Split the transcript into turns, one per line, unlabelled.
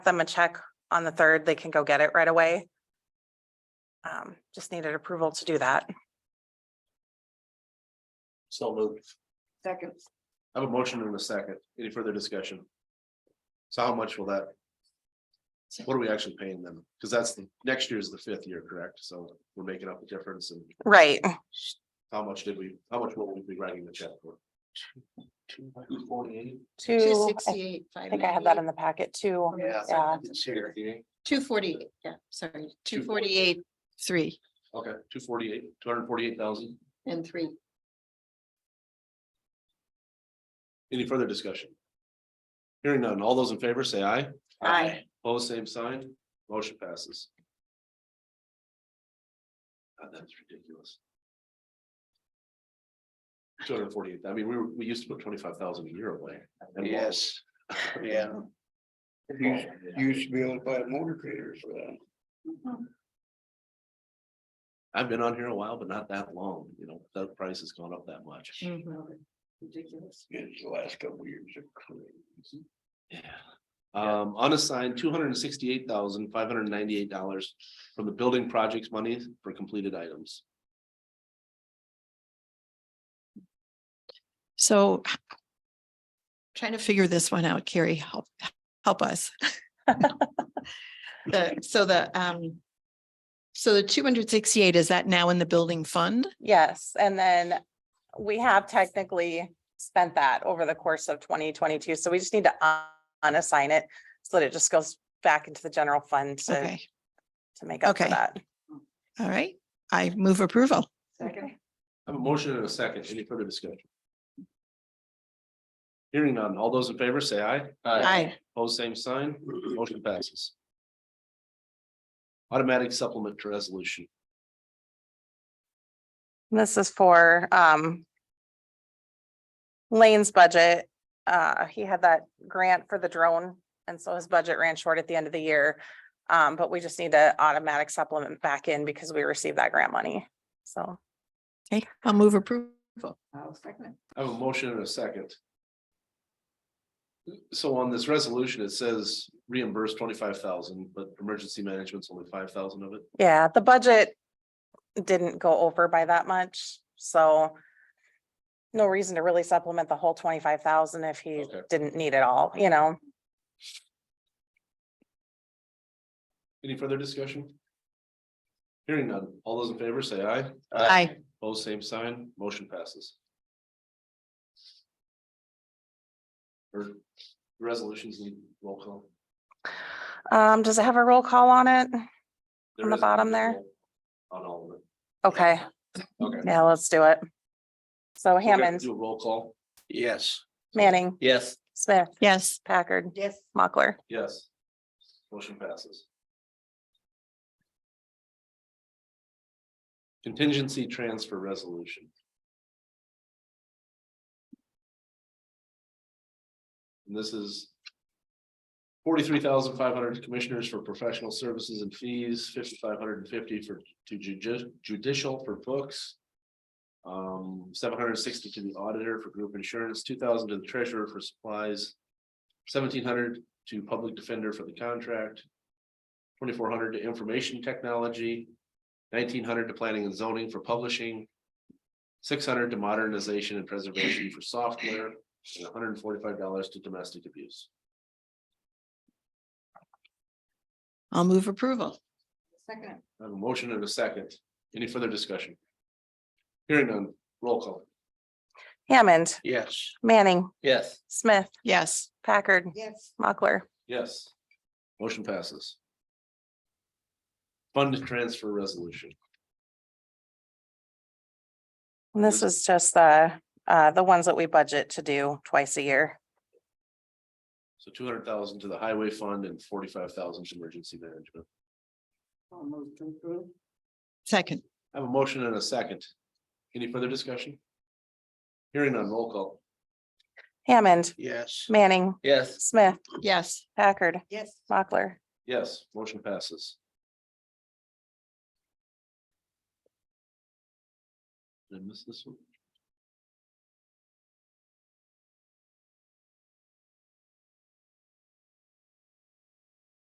them a check on the third, they can go get it right away. Um, just needed approval to do that.
So moved.
Second.
I have a motion and a second. Any further discussion? So how much will that? What are we actually paying them? Because that's the, next year is the fifth year, correct? So we're making up the difference and
Right,
how much did we, how much will we be writing the check for? Two forty-eight.
Two
two, I
sixty-eight. I
think I had that in the packet too.
Oh, Yeah.
Yeah,
Two forty, yeah, sorry, two forty-eight, three
Okay, two forty-eight, two hundred and forty-eight thousand.
and three.
Any further discussion? Hearing none. All those in favor say aye.
Aye.
Pose same sign. Motion passes. God, That's ridiculous. Two hundred and forty-eight. I mean, we were, we used to put twenty-five thousand a year away. and more.
Yes, yeah. You used to be able to buy motor graders for that.
I've been on here a while, but not that long, you know, the price has gone up that much.
Mm.
Ridiculous.
It's the last couple of years of crazy.
Yeah. Um, unassigned, two hundred and sixty-eight thousand, five hundred and ninety-eight dollars from the building projects money for completed items.
So h- trying to figure this one out, Carrie, help, help us. The, so the, um, so the two hundred sixty-eight, is that now in the building fund?
Yes, and then we have technically spent that over the course of twenty twenty-two, so we just need to un- unassign it. So that it just goes back into the general fund to,
Okay,
to make up for
Okay.
that.
all right. I move approval.
Second.
I have a motion and a second. Any further discussion? Hearing none. All those in favor say aye.
Aye.
Pose same sign. Motion passes. Automatic supplement to resolution.
This is for um. Lane's budget, uh, he had that grant for the drone, and so his budget ran short at the end of the year. Um, but we just need to automatic supplement back in because we received that grant money, so.
Okay, I'll move approval.
I'll second
I have a motion and a second. So on this resolution, it says reimburse twenty-five thousand, but emergency management's only five thousand of it.
Yeah, the budget didn't go over by that much, so. No reason to really supplement the whole twenty-five thousand if he
Okay.
didn't need it all, you know?
Any further discussion? Hearing none. All those in favor say aye.
Aye.
Pose same sign. Motion passes. Or resolutions need roll call.
Um, does it have a roll call on it?
There
On the
is a
bottom there?
roll On all of it.
Okay,
Okay.
yeah, let's do it. So
We're gonna
Hammond,
Do a roll call.
Yes.
Manning,
Yes.
Smith,
Yes,
Packard,
Yes.
Mochler.
Yes. Motion passes. Contingency transfer resolution. And this is forty-three thousand five hundred commissioners for professional services and fees, fifty-five hundred and fifty for to judi- judicial for books. Um, seven hundred and sixty to the auditor for group insurance, two thousand to the treasurer for supplies. Seventeen hundred to public defender for the contract. Twenty-four hundred to information technology. Nineteen hundred to planning and zoning for publishing. Six hundred to modernization and preservation for software, and hundred and forty-five dollars to domestic abuse.
I'll move approval.
Second.
I have a motion and a second. Any further discussion? Hearing none, roll call.
Hammond,
Yes.
Manning,
Yes.
Smith,
Yes,
Packard,
Yes.
Mochler.
Yes. Motion passes. Fund transfer resolution.
And this is just the, uh, the ones that we budget to do twice a year.
So two hundred thousand to the highway fund and forty-five thousand to emergency management.
I'll move to approve.
second.
I have a motion and a second. Any further discussion? Hearing none, roll call.
Hammond,
Yes.
Manning,
Yes.
Smith,
Yes,
Packard,
Yes.
Mochler.
Yes, motion passes. Did I miss this one?